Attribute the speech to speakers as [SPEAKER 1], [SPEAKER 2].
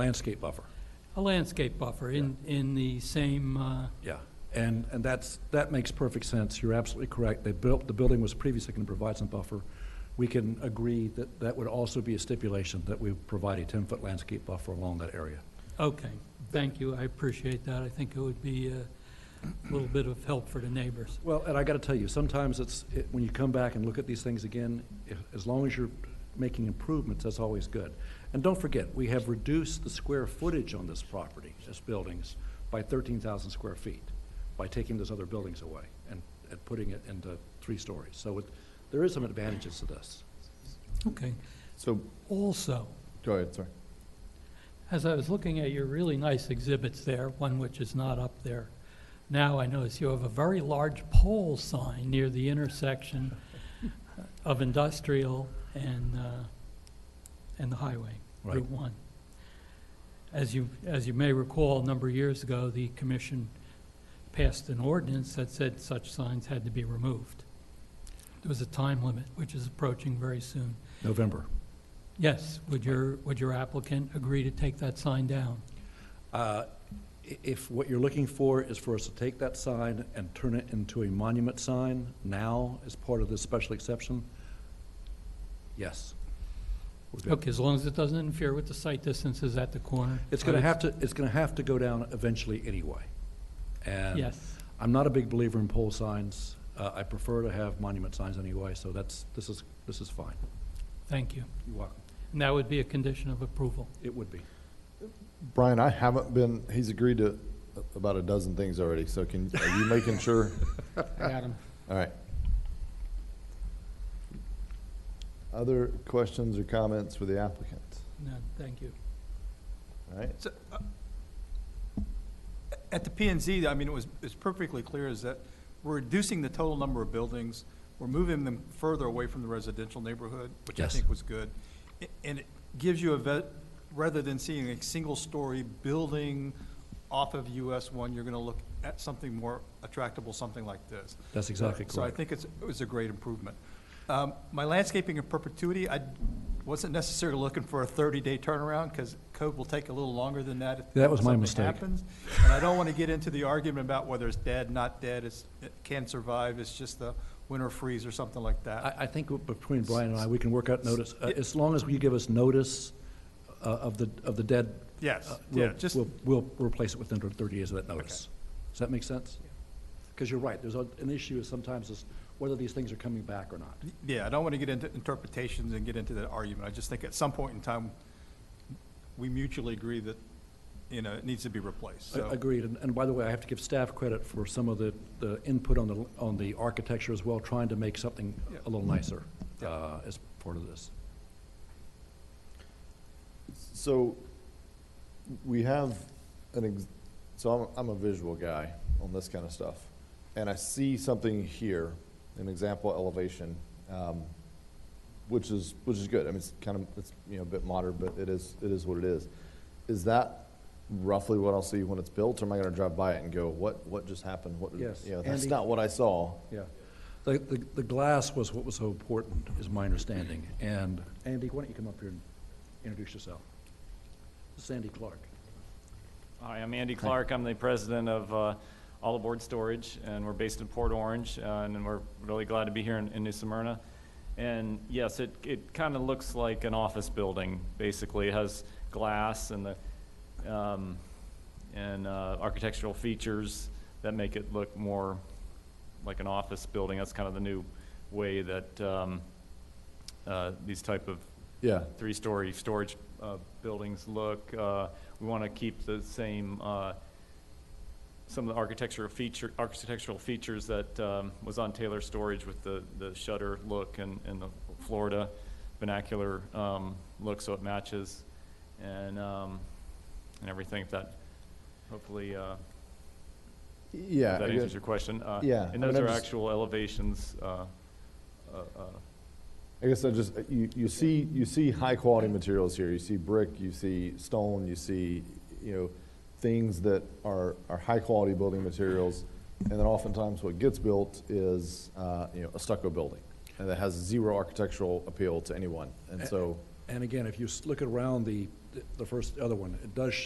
[SPEAKER 1] landscape buffer,
[SPEAKER 2] A landscape buffer in, in the same, uh,
[SPEAKER 1] yeah. And, and that's, that makes perfect sense. You're absolutely correct. They built, the building was previously going to provide some buffer. We can agree that that would also be a stipulation, that we provide a 10-foot landscape buffer along that area.
[SPEAKER 2] okay, thank you, I appreciate that. I think it would be uh, a little bit of help for the neighbors.
[SPEAKER 1] Well, and I got to tell you, sometimes it's, it- when you come back and look at these things again, i- as long as you're making improvements, that's always good. And don't forget, we have reduced the square footage on this property, this buildings, by 13,000 square feet, by taking those other buildings away and, and putting it into three stories. So it- there is some advantages to this.
[SPEAKER 2] Okay,
[SPEAKER 3] So,
[SPEAKER 2] also,
[SPEAKER 3] go ahead, sorry.
[SPEAKER 2] as I was looking at your really nice exhibits there, one which is not up there, now I notice you have a very large pole sign near the intersection of industrial and, uh, and the highway, Route
[SPEAKER 1] Right.
[SPEAKER 2] 1. As you, as you may recall, a number of years ago, the commission passed an ordinance that said such signs had to be removed. There was a time limit, which is approaching very soon.
[SPEAKER 1] November.
[SPEAKER 2] Yes, would your, would your applicant agree to take that sign down?
[SPEAKER 1] Uh, i- If what you're looking for is for us to take that sign and turn it into a monument sign now as part of this special exception, yes. We're good.
[SPEAKER 2] Okay, as long as it doesn't interfere with the sight distances at the corner.
[SPEAKER 1] It's
[SPEAKER 2] I
[SPEAKER 1] gonna
[SPEAKER 2] would-
[SPEAKER 1] have to, it's gonna have to go down eventually anyway. And
[SPEAKER 2] Yes,
[SPEAKER 1] I'm not a big believer in pole signs. Uh, I prefer to have monument signs anyway, so that's, this is, this is fine.
[SPEAKER 2] thank you.
[SPEAKER 1] You're welcome.
[SPEAKER 2] And that would be a condition of approval.
[SPEAKER 1] It would be.
[SPEAKER 3] Brian, I haven't been, he's agreed to about a dozen things already, so can, are you making sure?
[SPEAKER 4] I got him.
[SPEAKER 3] All right. Other questions or comments for the applicant?
[SPEAKER 2] No, thank you.
[SPEAKER 3] All right,
[SPEAKER 5] So, uh, At the P and Z, I mean, it was, it's perfectly clear is that we're reducing the total number of buildings. We're moving them further away from the residential neighborhood, which I
[SPEAKER 1] Yes.
[SPEAKER 5] think was good. A- And it gives you a vet, rather than seeing a single-story building off of US one, you're gonna look at something more attractable, something like this.
[SPEAKER 1] That's exactly
[SPEAKER 5] So I
[SPEAKER 1] correct.
[SPEAKER 5] think it's, it was a great improvement. Um, My landscaping in perpetuity, I wasn't necessarily looking for a 30-day turnaround, because code will take a little longer than that. if
[SPEAKER 1] That was my
[SPEAKER 5] something
[SPEAKER 1] mistake.
[SPEAKER 5] happens. And I don't want to get into the argument about whether it's dead, not dead, it's, it can survive, it's just the winter freeze or something like that.
[SPEAKER 1] I, I think between Brian and I, we can work out notice, uh, as long as you give us notice uh, of the, of the dead.
[SPEAKER 5] Yes,
[SPEAKER 1] uh, we'll-
[SPEAKER 5] yeah, just,
[SPEAKER 1] We'll, we'll replace it within thirty days of that notice. Does that make sense? Because you're right, there's a- an issue is sometimes is whether these things are coming back or not.
[SPEAKER 5] yeah, I don't want to get into interpretations and get into that argument. I just think at some point in time, we mutually agree that, you know, it needs to be replaced,
[SPEAKER 1] A-
[SPEAKER 5] so.
[SPEAKER 1] Agreed, and, and by the way, I have to give staff credit for some of the, the input on the, on the architecture as well, trying to make something
[SPEAKER 5] Yeah.
[SPEAKER 1] a little nicer,
[SPEAKER 5] Yeah.
[SPEAKER 1] uh, as part of this.
[SPEAKER 3] so we have an, ex- so I'm, I'm a visual guy on this kind of stuff. And I see something here, an example elevation, um, which is, which is good. I mean, it's kind of, it's, you know, a bit modern, but it is, it is what it is. Is that roughly what I'll see when it's built, or am I gonna drive by it and go, what, what just happened? What, did-"
[SPEAKER 1] Yes,
[SPEAKER 3] you know, that's
[SPEAKER 1] Andy.
[SPEAKER 3] not what I saw.
[SPEAKER 1] Yeah. The, the, the glass was what was so important, is my understanding, and. Andy, why don't you come up here and introduce yourself? This is Andy Clark.
[SPEAKER 6] Hi, I'm Andy Clark. I'm the president of uh, All Aboard Storage, and we're based in Port Orange, uh, and we're really glad to be here in in New Smyrna. And yes, it, it kind of looks like an office building, basically. It has glass and the, um, and uh, architectural features that make it look more like an office building. That's kind of the new way that um, uh, these type of
[SPEAKER 3] Yeah,
[SPEAKER 6] three-story storage uh, buildings look. Uh, We want to keep the same, uh, some of the architectural feature, architectural features that um, was on Taylor Storage with the, the shutter look and, and the Florida vernacular um, look, so it matches, and, um, and everything, if that, hopefully, uh,
[SPEAKER 3] yeah.
[SPEAKER 6] if that
[SPEAKER 3] I
[SPEAKER 6] answers
[SPEAKER 3] guess-
[SPEAKER 6] your question. Uh,
[SPEAKER 3] Yeah, I mean,
[SPEAKER 6] And those
[SPEAKER 3] I'm
[SPEAKER 6] are
[SPEAKER 3] just-
[SPEAKER 6] actual elevations, uh, uh, uh,
[SPEAKER 3] I guess I just, you, you see, you see high-quality materials here, you see brick, you see stone, you see, you know, things that are, are high-quality building materials, and then oftentimes what gets built is, uh, you know, a stucco building, and that has zero architectural appeal to anyone, and so,
[SPEAKER 1] And again, if you s- look around the, the first, other one, it does